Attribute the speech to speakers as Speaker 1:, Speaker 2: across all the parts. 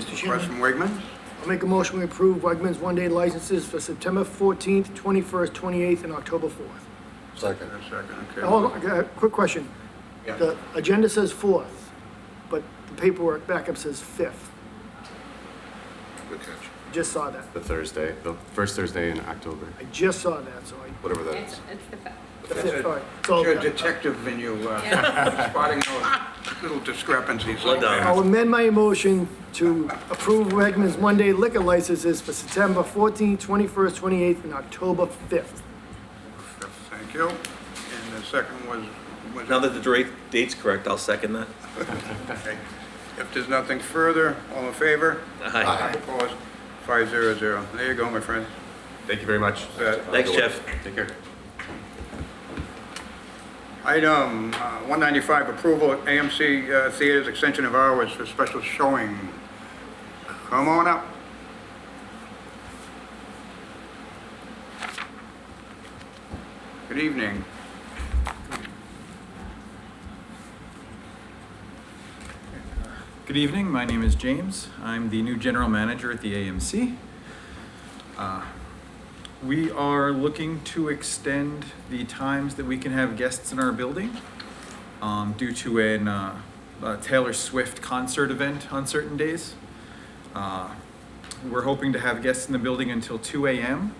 Speaker 1: request from Wegmans.
Speaker 2: I'll make a motion, we approve Wegmans one-day licenses for September fourteenth, twenty-first, twenty-eighth, and October fourth.
Speaker 3: Second.
Speaker 1: A second, okay.
Speaker 2: Hold on, I got a quick question.
Speaker 1: Yeah.
Speaker 2: The agenda says fourth, but the paperwork backup says fifth.
Speaker 3: Good catch.
Speaker 2: Just saw that.
Speaker 4: The Thursday, the first Thursday in October,
Speaker 2: I just saw that, so I,
Speaker 4: whatever that
Speaker 5: It's,
Speaker 4: is.
Speaker 5: it's the fact.
Speaker 2: the
Speaker 1: That's
Speaker 2: fifth,
Speaker 1: a-
Speaker 2: all right.
Speaker 1: It's your
Speaker 2: So
Speaker 1: detective in you, uh, spotting those little discrepancies like
Speaker 2: I'll
Speaker 1: that.
Speaker 2: amend my motion to approve Wegmans one-day liquor licenses for September fourteenth, twenty-first, twenty-eighth, and October fifth.
Speaker 1: Thank you. And the second was, was.
Speaker 6: Now that the dra- date's correct, I'll second that.
Speaker 1: Okay. If there's nothing further, all in favor?
Speaker 6: Aye.
Speaker 1: Opposed? Five zero zero. There you go, my friend.
Speaker 4: Thank you very much.
Speaker 1: Uh,
Speaker 6: Thanks, Jeff.
Speaker 4: Take care.
Speaker 1: Item uh, 195, approval of AMC uh, Theaters extension of hours for special showing. Come on up. Good evening.
Speaker 7: Good evening, my name is James. I'm the new general manager at the AMC. Uh, We are looking to extend the times that we can have guests in our building um, due to an, uh, a Taylor Swift concert event on certain days. Uh, We're hoping to have guests in the building until two AM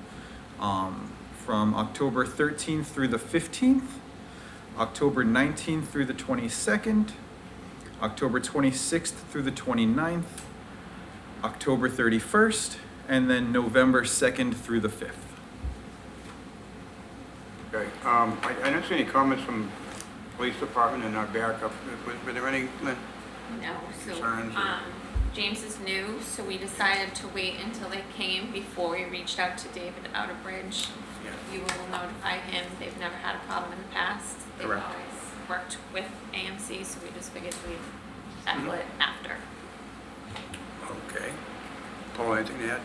Speaker 7: um, from October thirteenth through the fifteenth, October nineteenth through the twenty-second, October 26th through the 29th, October 31st, and then November 2nd through the 5th.
Speaker 1: Okay, um, I I don't see any comments from police department in our backup. Was- Were there any, Lynn?
Speaker 5: No, so,
Speaker 1: Concerns or-
Speaker 5: um, James is new, so we decided to wait until they came before we reached out to David Outerbridge.
Speaker 1: Yeah.
Speaker 5: You will notify him, they've never had a problem in the past. They've
Speaker 1: Correct.
Speaker 5: always worked with AMC, so we just figured we'd settle
Speaker 1: Mm-hmm.
Speaker 5: it after.
Speaker 1: Okay. Paul, anything to add?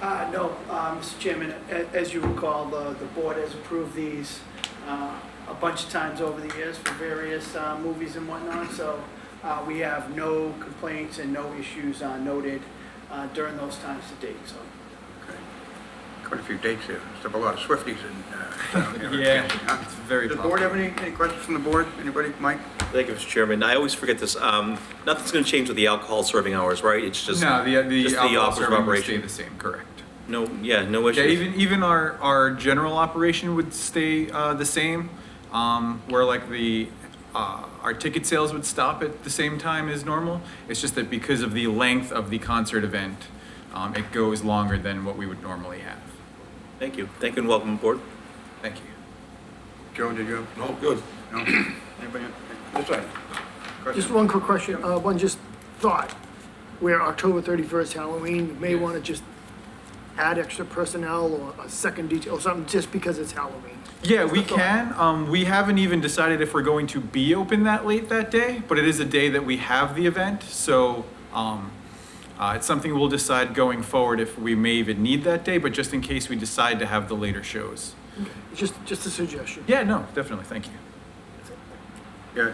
Speaker 8: Uh, No, uh, Mr. Chairman, a- as you recall, the the board has approved these uh, a bunch of times over the years for various uh, movies and whatnot, so uh, we have no complaints and no issues uh, noted uh, during those times to date, so.
Speaker 1: Okay. Quite a few dates here. Still a lot of Swifties in uh, town here.
Speaker 7: Yeah,
Speaker 1: Huh?
Speaker 7: it's very
Speaker 1: Does the board have
Speaker 7: popular.
Speaker 1: any any questions from the board? Anybody? Mike?
Speaker 6: Thank you, Mr. Chairman. I always forget this. Um, nothing's gonna change with the alcohol serving hours, right? It's just.
Speaker 7: No, the,
Speaker 6: just
Speaker 7: the alcohol
Speaker 6: hours of
Speaker 7: serving will stay
Speaker 6: operation.
Speaker 7: the same, correct.
Speaker 6: No, yeah, no
Speaker 7: Yeah,
Speaker 6: issues.
Speaker 7: even, even our, our general operation would stay uh, the same, um, where like the, uh, our ticket sales would stop at the same time as normal. It's just that because of the length of the concert event, um, it goes longer than what we would normally have.
Speaker 6: Thank you. Thank you and welcome aboard.
Speaker 7: Thank you.
Speaker 1: Joe, did you?
Speaker 3: No, good.
Speaker 1: No? Anybody? This side.
Speaker 2: Just
Speaker 1: Question?
Speaker 2: one quick question, uh, one just thought, where October thirty-first Halloween, you may wanna just add extra personnel or a second detail or something, just because it's Halloween.
Speaker 7: Yeah,
Speaker 2: Just
Speaker 7: we
Speaker 2: a thought.
Speaker 7: can. Um, we haven't even decided if we're going to be open that late that day, but it is a day that we have the event, so, um, uh, it's something we'll decide going forward if we may even need that day, but just in case we decide to have the later shows.
Speaker 2: Just, just a suggestion.
Speaker 7: Yeah, no, definitely, thank you.
Speaker 1: Yeah.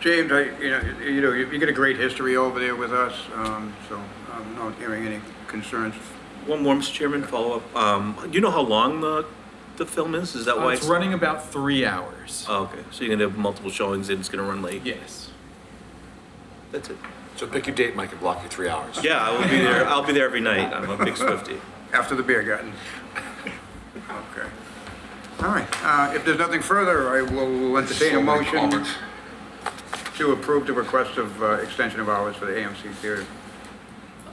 Speaker 1: James, I, you know, you- you know, you you get a great history over there with us, um, so I'm not hearing any concerns.
Speaker 6: One more, Mr. Chairman, follow up. Um, do you know how long the, the film is? Is that
Speaker 7: Uh,
Speaker 6: why?
Speaker 7: it's running about three hours.
Speaker 6: Oh, okay. So you're gonna have multiple showings and it's gonna run late?
Speaker 7: Yes.
Speaker 6: That's it.
Speaker 3: So pick your date, Mike, and block your three hours.
Speaker 6: Yeah, I will be there. I'll be there every night. I'm a big Swiftie.
Speaker 1: After the beer garden. Okay. All right. Uh, If there's nothing further, I will entertain a
Speaker 3: So many
Speaker 1: motion
Speaker 3: comments.
Speaker 1: to approve the request of uh, extension of hours for the AMC Theater.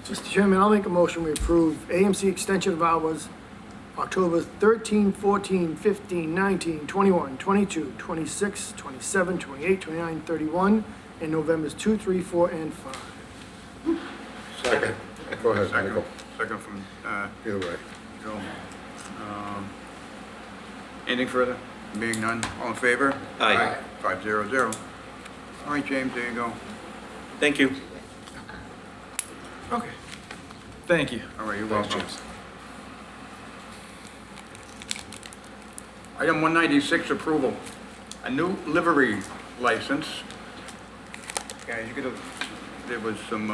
Speaker 2: Mr. Chairman, I'll make a motion, we approve AMC extension of hours, October 13, 14, 15, 19, 21, 22, 26, 27, 28, 29, 31, and November's 2, 3, 4, and 5.
Speaker 3: Second. Go ahead,
Speaker 1: Second,
Speaker 3: Michael.
Speaker 1: second from uh,
Speaker 3: Either way.
Speaker 1: Joe. Um, Anything further? Being none, all in favor?
Speaker 6: Aye.
Speaker 1: Five zero zero. All right, James, there you go.
Speaker 6: Thank you.
Speaker 7: Okay. Thank you.
Speaker 1: All right, you're
Speaker 3: Thanks,
Speaker 1: welcome.
Speaker 3: James.
Speaker 1: Item one ninety-six, approval. A new livery license. Guys, you could have, there was some uh,